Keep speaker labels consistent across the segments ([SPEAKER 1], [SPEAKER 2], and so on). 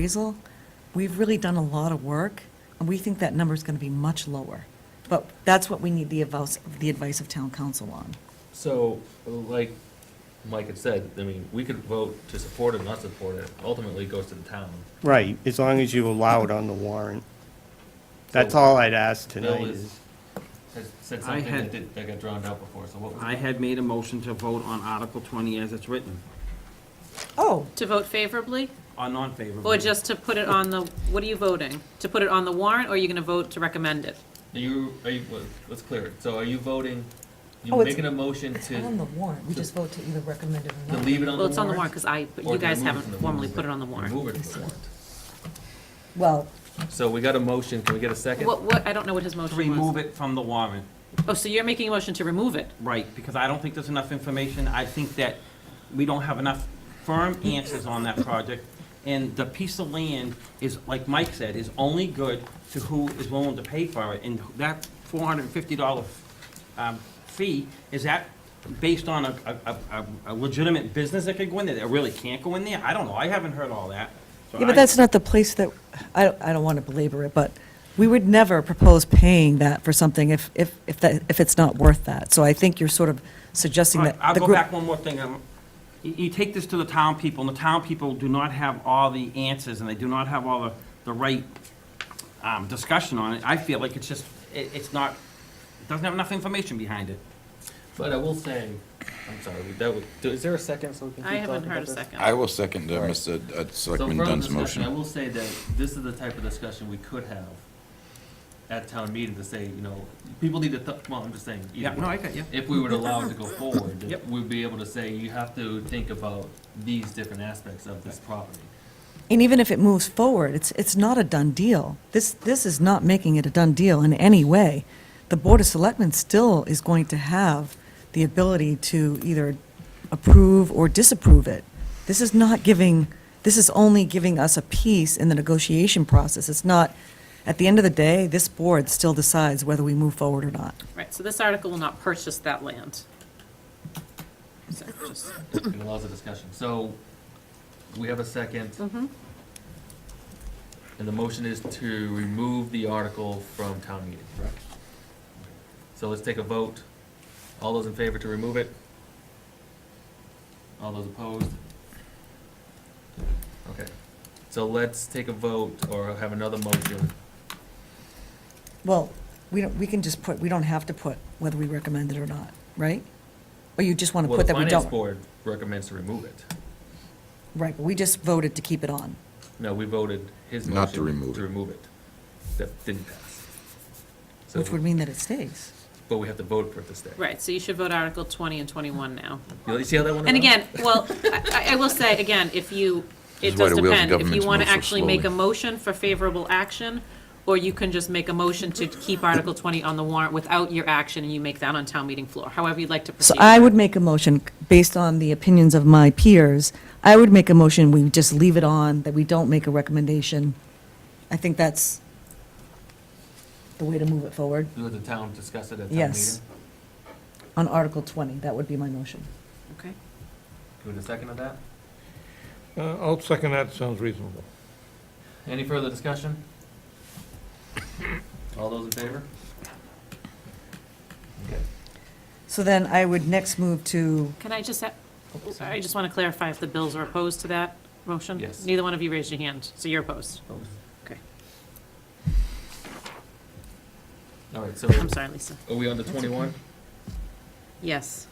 [SPEAKER 1] appraisal, we've really done a lot of work, and we think that number's going to be much lower. But that's what we need the advice, the advice of town council on.
[SPEAKER 2] So, like Mike had said, I mean, we could vote to support it, not support it, ultimately it goes to the town.
[SPEAKER 3] Right, as long as you allow it on the warrant. That's all I'd ask tonight
[SPEAKER 2] Bill is-
[SPEAKER 3] is,
[SPEAKER 2] Has said
[SPEAKER 4] I
[SPEAKER 2] something that
[SPEAKER 4] had-
[SPEAKER 2] did, that got drowned out before, so what was?
[SPEAKER 4] I had made a motion to vote on Article 20 as it's written,
[SPEAKER 1] Oh,
[SPEAKER 5] To vote favorably,
[SPEAKER 4] or Uh, non-favorable.
[SPEAKER 5] or just to put it on the, what are you voting? To put it on the warrant, or are you gonna vote to recommend it?
[SPEAKER 2] Are you, are you, well, let's clear it, so are you voting, you
[SPEAKER 1] Oh, it's-
[SPEAKER 2] making a motion
[SPEAKER 1] it's on the
[SPEAKER 2] to,
[SPEAKER 1] warrant, we just vote to either recommend it or
[SPEAKER 2] to
[SPEAKER 1] not.
[SPEAKER 2] leave it on the warrant?
[SPEAKER 5] Well, it's on the warrant, because I, but
[SPEAKER 2] or to
[SPEAKER 5] you guys
[SPEAKER 2] remove
[SPEAKER 5] haven't
[SPEAKER 2] from the
[SPEAKER 5] formally
[SPEAKER 2] warrant?
[SPEAKER 5] put it on the warrant.
[SPEAKER 2] Remove it from the warrant.
[SPEAKER 1] Well,
[SPEAKER 2] So we got a motion, can we get a second?
[SPEAKER 5] What, what, I don't know what his motion
[SPEAKER 4] To
[SPEAKER 5] was.
[SPEAKER 4] remove it from the warrant,
[SPEAKER 5] Oh, so you're making a motion to remove it?
[SPEAKER 4] right, because I don't think there's enough information. I think that we don't have enough firm answers on that project. And the piece of land is, like Mike said, is only good to who is willing to pay for it. And that $450 um, fee, is that based on a, a- a- a legitimate business that could go in there, that really can't go in there? I don't know, I haven't heard all that. So
[SPEAKER 1] Yeah, but
[SPEAKER 4] I-
[SPEAKER 1] that's not the place that, I, don't- I don't want to belabor it, but we would never propose paying that for something if, if, if that, if it's not worth that. So I think you're sort of suggesting
[SPEAKER 4] All
[SPEAKER 1] that
[SPEAKER 4] right, I'll
[SPEAKER 1] the
[SPEAKER 4] go
[SPEAKER 1] group.
[SPEAKER 4] back one more thing. Um, You you take this to the town people, and the town people do not have all the answers, and they do not have all the, the right um, discussion on it. I feel like it's just, it- it's not, it doesn't have enough information behind it.
[SPEAKER 2] But I will say, I'm sorry, that was, is there a second so we can keep
[SPEAKER 5] I
[SPEAKER 2] talking
[SPEAKER 5] haven't heard a
[SPEAKER 2] about this?
[SPEAKER 5] second.
[SPEAKER 6] I will second uh, Mr. uh, Selectman
[SPEAKER 2] So further
[SPEAKER 6] Dunn's
[SPEAKER 2] discussion, I
[SPEAKER 6] motion.
[SPEAKER 2] will say that this is the type of discussion we could have at town meeting to say, you know, people need to, th- well, I'm just saying. either
[SPEAKER 4] Yeah,
[SPEAKER 2] way.
[SPEAKER 4] no, I got, yeah.
[SPEAKER 2] If we were to allow it to go forward,
[SPEAKER 4] Yep.
[SPEAKER 2] we'd be able to say, you have to think about these different aspects of this property.
[SPEAKER 1] And even if it moves forward, it's, it's not a done deal. This, this is not making it a done deal in any way. The Board of Selectmen still is going to have the ability to either approve or disapprove it. This is not giving, this is only giving us a piece in the negotiation process. It's not, at the end of the day, this board still decides whether we move forward or not.
[SPEAKER 5] Right, so this article will not purchase that land. So, just-
[SPEAKER 2] It allows a discussion. So we have a 2nd And the motion is to remove the article from town meeting, correct? So let's take a vote. All those in favor to remove it? All those opposed? Okay, so let's take a vote or have another motion.
[SPEAKER 1] Well, we don't, we can just put, we don't have to put whether we recommend it or not, right? Or you just want to
[SPEAKER 2] Well,
[SPEAKER 1] put
[SPEAKER 2] the
[SPEAKER 1] that we
[SPEAKER 2] finance
[SPEAKER 1] don't?
[SPEAKER 2] board recommends to remove it.
[SPEAKER 1] Right, but we just voted to keep it on.
[SPEAKER 2] No, we voted his motion.
[SPEAKER 6] Not to remove
[SPEAKER 2] To
[SPEAKER 6] it.
[SPEAKER 2] remove it. That didn't pass. So,
[SPEAKER 1] Which would mean that it stays.
[SPEAKER 2] but we have to vote for it to stay.
[SPEAKER 5] Right, so you should vote Article 20 and 21 now.
[SPEAKER 2] You see how that one? around?
[SPEAKER 5] And again, well, I, I will say, again, if you,
[SPEAKER 6] This
[SPEAKER 5] it
[SPEAKER 6] is why
[SPEAKER 5] does
[SPEAKER 6] the wheels of
[SPEAKER 5] depend, if you
[SPEAKER 6] government
[SPEAKER 5] want to
[SPEAKER 6] move so
[SPEAKER 5] actually make a
[SPEAKER 6] slowly.
[SPEAKER 5] motion for favorable action, or you can just make a motion to keep Article twenty on the warrant without your action, and you make that on town meeting floor, however you'd like to
[SPEAKER 1] So
[SPEAKER 5] proceed.
[SPEAKER 1] I would make a motion, based on the opinions of my peers, I would make a motion, we just leave it on, that we don't make a recommendation. I think that's the way to move it forward.
[SPEAKER 2] Let the town discuss it at town meeting?
[SPEAKER 1] Yes. On Article 20, that would be my motion.
[SPEAKER 5] Okay,
[SPEAKER 2] Do we have a second of that?
[SPEAKER 7] Uh, I'll second that, sounds reasonable.
[SPEAKER 2] Any further discussion? All those in favor? Okay.
[SPEAKER 1] So then I would next move to,
[SPEAKER 5] can I just, ha- I just want to clarify if the bills are opposed to that motion?
[SPEAKER 2] Yes.
[SPEAKER 5] Neither one of you raised your hand, so you're opposed. Okay,
[SPEAKER 2] All right, so
[SPEAKER 5] I'm sorry, Lisa.
[SPEAKER 2] are we on to twenty-one?
[SPEAKER 5] Yes,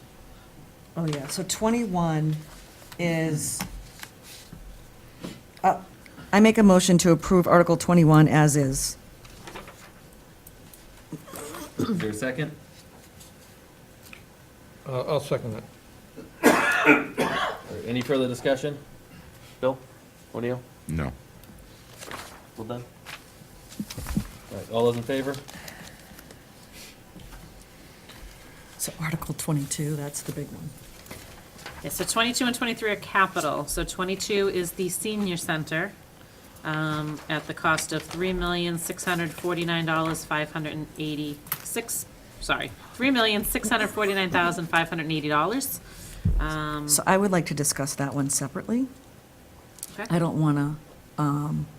[SPEAKER 1] oh yeah, so 21 is, uh, I make a motion to approve Article 21 as is.
[SPEAKER 2] Is there a second?
[SPEAKER 7] Uh, I'll second that.
[SPEAKER 2] All right, Any further discussion? Bill? O'Neill?
[SPEAKER 6] No.
[SPEAKER 2] Well done. All right, all those in favor?
[SPEAKER 1] So Article 22, that's the big one.
[SPEAKER 5] Yeah, so 22 and 23 are capital. So 22 is the senior center um, at the cost of $3,649,586, sorry, $3,649,580. Um,
[SPEAKER 1] So I would like to discuss that one separately.
[SPEAKER 5] okay.
[SPEAKER 1] I don't want to um,